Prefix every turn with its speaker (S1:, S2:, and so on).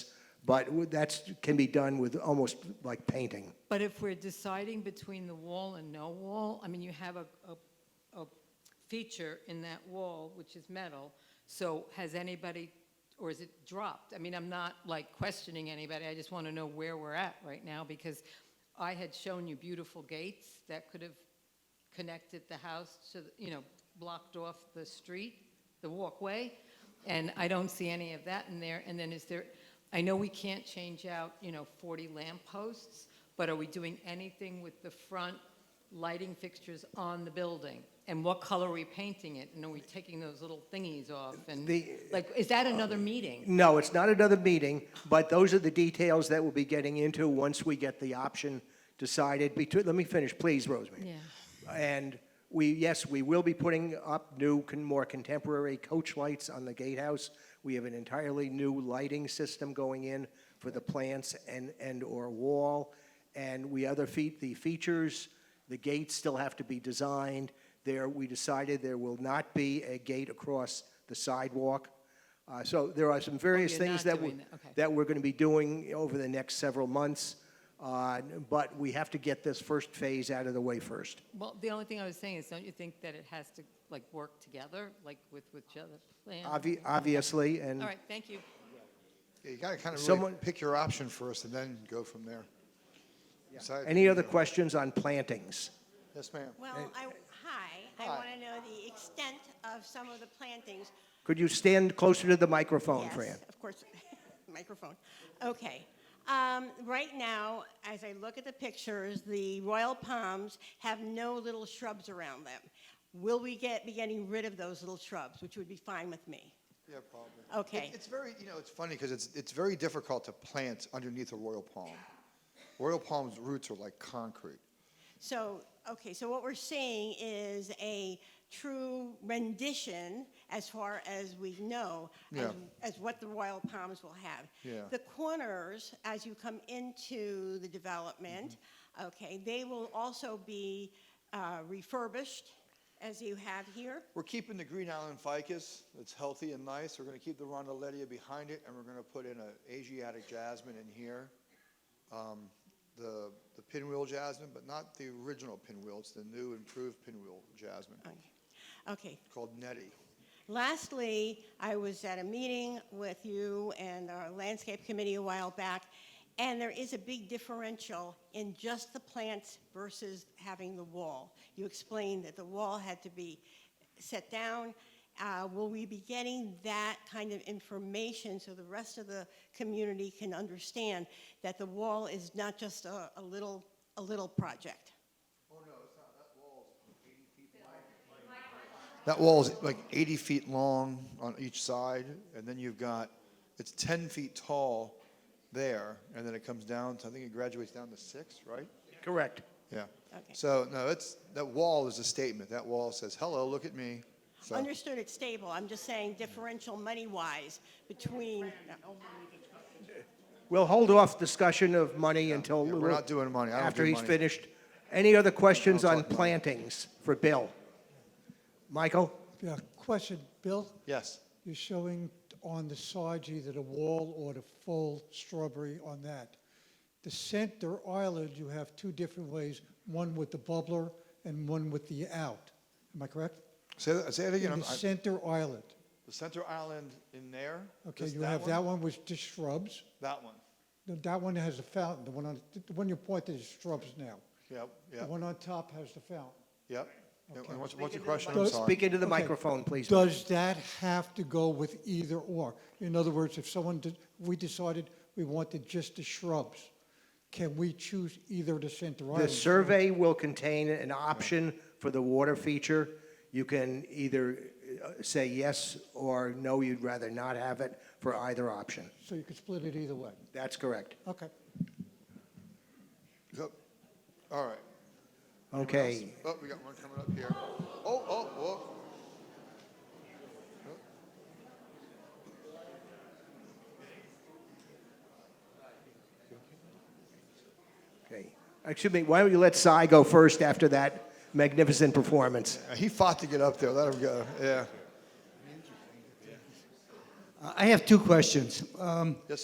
S1: but that's, can be done with almost like painting.
S2: But if we're deciding between the wall and no wall, I mean, you have a, a, a feature in that wall, which is metal, so has anybody, or is it dropped? I mean, I'm not like questioning anybody, I just want to know where we're at right now, because I had shown you beautiful gates that could have connected the house to, the- you know, blocked off the street, the walkway, and I don't see any of that in there. And then is there, I know we can't change out, you know, 40 lampposts, but are we doing anything with the front lighting fixtures on the building? And what color are we painting it? And are we taking those little thingies off? And,
S1: The-
S2: like, is that another meeting?
S1: No, it's not another meeting, but those are the details that we'll be getting into once we get the option decided. Between, let me finish, please, Rosemary.
S2: Yeah.
S1: And we, yes, we will be putting up new, con- more contemporary coach lights on the gatehouse. We have an entirely new lighting system going in for the plants and, and/or wall. And we other feat, the features, the gates still have to be designed. There, we decided there will not be a gate across the sidewalk. Uh, So there are some various
S2: Oh, you're
S1: things
S2: not
S1: that we,
S2: doing that, okay.
S1: that we're going to be doing over the next several months. uh, But we have to get this first phase out of the way first.
S2: Well, the only thing I was saying is, don't you think that it has to, like, work together, like, with, with each other? Plan? All
S1: Obvi- Obviously, and
S2: right, thank you.
S3: Yeah, you gotta kind of really
S1: Someone-
S3: pick your option first and then go from there. Decide-
S1: any other questions on plantings?
S3: Yes, ma'am.
S4: Well, I, hi, I
S3: Hi.
S4: want to know the extent of some of the plantings.
S1: Could you stand closer to the microphone, Fran?
S4: Yes, of course, microphone. Okay. Um, Right now, as I look at the pictures, the royal palms have no little shrubs around them. Will we get, be getting rid of those little shrubs, which would be fine with me?
S3: Yeah, probably.
S4: Okay.
S3: It- It's very, you know, it's funny because it's, it's very difficult to plant underneath a royal palm. Royal palm's roots are like concrete.
S4: So, okay, so what we're seeing is a true rendition, as far as we know,
S3: Yeah.
S4: as, as what the Royal Palms will have.
S3: Yeah.
S4: The corners, as you come into the development,
S3: Mm-hmm.
S4: okay, they will also be uh, refurbished, as you have here.
S3: We're keeping the Green Island ficus. It's healthy and nice. We're gonna keep the rondeletia behind it and we're gonna put in a Asiatic jasmine in here. Um, The, the pinwheel jasmine, but not the original pinwheel. It's the new improved pinwheel jasmine
S4: Okay. Okay,
S3: called Nettie.
S4: Lastly, I was at a meeting with you and our landscape committee a while back, and there is a big differential in just the plants versus having the wall. You explained that the wall had to be set down. Uh, Will we be getting that kind of information so the rest of the community can understand that the wall is not just a a little, a little project?
S3: That wall is like 80 feet long on each side, and then you've got, it's 10 feet tall there, and then it comes down to, I think it graduates down to six, right?
S1: Correct.
S3: Yeah.
S4: Okay.
S3: So, no, it's, that wall is a statement. That wall says, hello, look at me. So,
S4: Understood it's stable, I'm just saying differential money-wise between,
S1: We'll hold off discussion of money until.
S3: yeah, we're not doing money. I don't
S1: After
S3: do
S1: he's
S3: money.
S1: finished. Any other questions
S3: I'll
S1: on
S3: talk money.
S1: plantings for Bill? Michael?
S5: Yeah, question, Bill,
S3: yes.
S5: you're showing on the side either the wall or the full strawberry on that. The center island, you have two different ways, one with the bubbler and one with the out. Am I correct?
S3: Say that, say that again.
S5: In
S3: I'm-
S5: the
S3: I-
S5: center island.
S3: the center island in there.
S5: Okay,
S3: this-
S5: you have that one with just shrubs.
S3: That one.
S5: No, That one has a fountain, the one on, the one you pointed is shrubs now.
S3: Yep,
S5: The
S3: yep,
S5: one on top has the fountain.
S3: yep. And
S5: Okay.
S3: What's, what's your question? I'm
S5: mic.
S3: sorry.
S1: Speak into the
S5: Okay.
S1: microphone, please.
S5: Does that have to go with either or? In other words, if someone, did- we decided we wanted just the shrubs, can we choose either the center
S1: The
S5: island?
S1: survey will contain an option for the water feature. You can either uh, say yes or no, you'd rather not have it for either option.
S5: So you could split it either way.
S1: That's correct.
S5: Okay.
S3: Yep. All right.
S1: Okay.
S3: Oh, we got one coming up here. Oh, oh, oh.
S1: Okay. Excuse me, why don't you let Cy go first after that magnificent performance?
S3: Uh, He fought to get up there. Let him go. Yeah.
S6: I have two questions. Um,